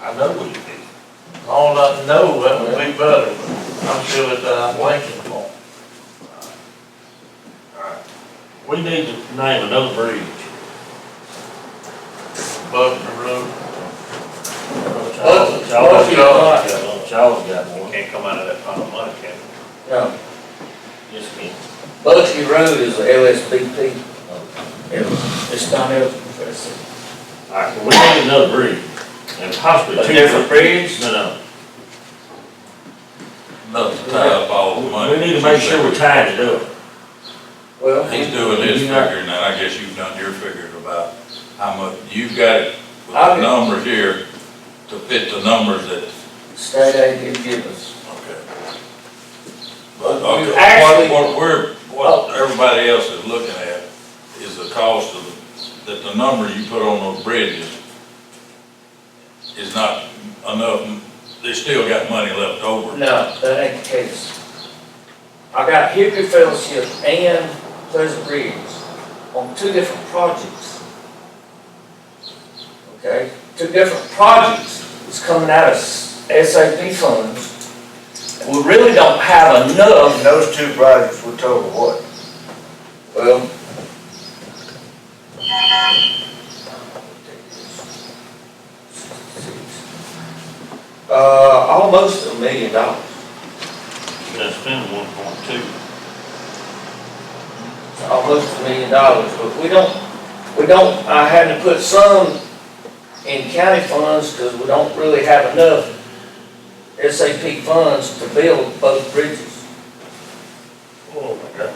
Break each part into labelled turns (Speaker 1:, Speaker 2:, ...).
Speaker 1: I know we did. All I know, that was Big Brother, I'm sure it's, uh, Lincoln Park. We need to name another bridge. Buster Road. Charles, Charles,
Speaker 2: Buster- Buster-
Speaker 1: Charles got one, Charles got one.
Speaker 3: Can't come out of that pot of money, can it?
Speaker 2: No,
Speaker 1: Yes, he can.
Speaker 2: Bugsy Road is a LSBP. It- It's not a, it's
Speaker 1: All right, well, we need another bridge, and possibly
Speaker 2: a
Speaker 1: two.
Speaker 2: different bridge.
Speaker 1: No, no.
Speaker 4: Not to tie up all the money.
Speaker 1: We need to make sure we're tying it up.
Speaker 2: Well,
Speaker 4: He's doing his
Speaker 2: you know,
Speaker 4: figure, and I guess you've done your figures about how much, you've got it with the
Speaker 2: I've-
Speaker 4: numbers here to fit the numbers that,
Speaker 2: State aid can give us.
Speaker 4: okay. But, okay,
Speaker 2: Actually-
Speaker 4: what, what we're, what everybody else is looking at is the cost of, that the number you put on those bridges is not enough, they still got money left over.
Speaker 2: No, that ain't the case. I got Hickory Fellowship and Pleasant Ridge on two different projects. Okay, two different projects, it's coming out of SAP funds. We really don't have enough,
Speaker 5: And those two projects were total what?
Speaker 2: well. Uh, almost a million dollars.
Speaker 1: That's been one point two.
Speaker 2: almost a million dollars, but we don't, we don't, I had to put some in county funds because we don't really have enough SAP funds to build both bridges.
Speaker 3: Oh, my God.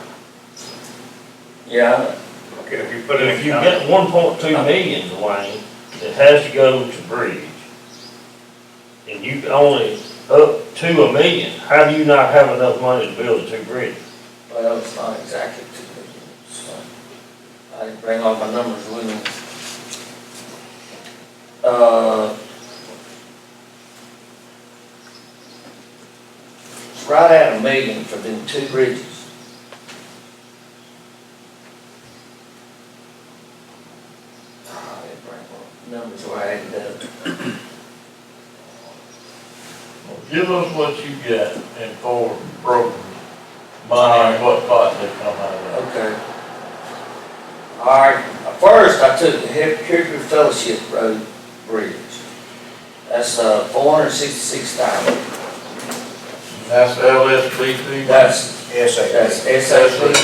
Speaker 2: Yeah.
Speaker 3: Okay, if you put
Speaker 1: But
Speaker 3: it
Speaker 1: if
Speaker 3: in
Speaker 1: you
Speaker 3: county,
Speaker 1: get one point two million, Dwayne, it has to go to bridge. And you can only up to a million, how do you not have enough money to build two bridges?
Speaker 2: Well, it's not exactly two million, so I didn't bring all my numbers with me. Uh. It's right at a million for them two bridges. Ah, I didn't bring my Numbers where I had that.
Speaker 1: Give us what you get in four programs, money, and what pot they come out of.
Speaker 2: Okay. All right, first I took the Hick- Hickory Fellowship Road Bridge. That's, uh, four hundred sixty-six thousand.
Speaker 1: That's LSPP.
Speaker 2: That's,
Speaker 5: SAP.
Speaker 2: that's SAP,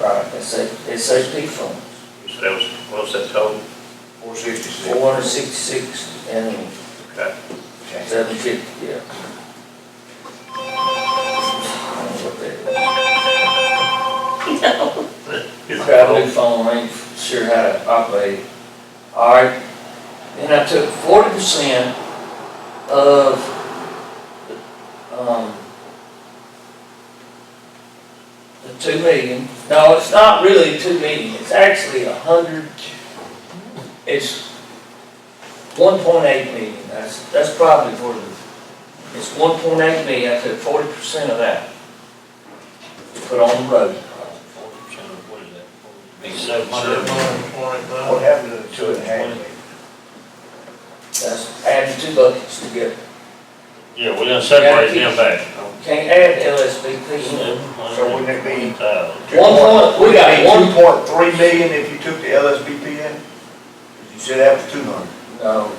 Speaker 5: Right,
Speaker 2: that's a- SAP fund,
Speaker 3: so that was, what's that total?
Speaker 5: four sixty-six.
Speaker 2: four hundred sixty-six and
Speaker 3: Okay.
Speaker 2: seven fifty, yeah. I don't know what that
Speaker 3: It's
Speaker 2: is. Got a new phone, I ain't sure how to operate. it. All right, then I took forty percent of, um, the two million, no, it's not really two million, it's actually a hundred, it's one point eight million, that's, that's probably for the, it's one point eight million, I took forty percent of that. to Put on the road,
Speaker 3: What is that?
Speaker 1: Be
Speaker 3: Be
Speaker 1: seven
Speaker 3: seven
Speaker 1: hundred
Speaker 3: hundred.
Speaker 1: and twenty
Speaker 5: What
Speaker 1: thousand.
Speaker 5: happened to the two and a half million?
Speaker 2: that's adding two buckets together,
Speaker 1: Yeah, we done separated them back.
Speaker 2: can't add LSVP.
Speaker 1: So
Speaker 5: wouldn't it be-
Speaker 2: One point, we got one,
Speaker 5: Two point three million if you took the LSBP in? 'Cause You said that was two hundred.
Speaker 2: no,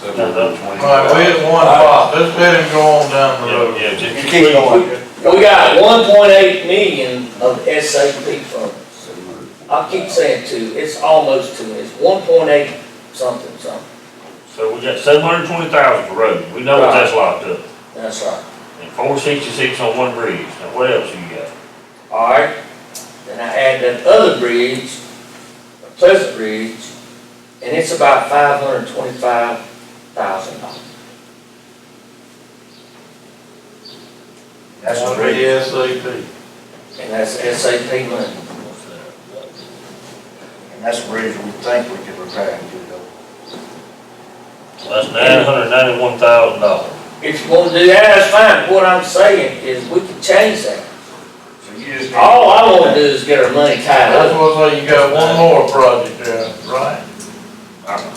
Speaker 4: So we're
Speaker 3: Another
Speaker 1: All right, we at one pot, let's let him go on down the road.
Speaker 3: Yeah, just.
Speaker 5: You keep going.
Speaker 2: we got one point eight million of SAP funds. I keep saying two, it's almost two, it's one point eight something, something,
Speaker 1: So we got seven hundred and twenty thousand for road, we know that that's locked up,
Speaker 2: that's right.
Speaker 1: and four sixty-six on one bridge, now what else you got?
Speaker 2: Alright, then I add that other bridge, the Pleasant Bridge, and it's about five hundred and twenty-five thousand dollars.
Speaker 5: That's
Speaker 1: One
Speaker 5: what it is.
Speaker 1: SAP.
Speaker 2: And that's SAP money.
Speaker 5: And that's the bridge we think we could repair and do it over.
Speaker 1: That's nine hundred and ninety-one thousand dollars.
Speaker 2: If you wanna do that, that's fine, what I'm saying is we can change that.
Speaker 5: So you just.
Speaker 3: Oh,
Speaker 2: All I wanna do is get our money tied up.
Speaker 1: That's what I say, you got one more project there, right?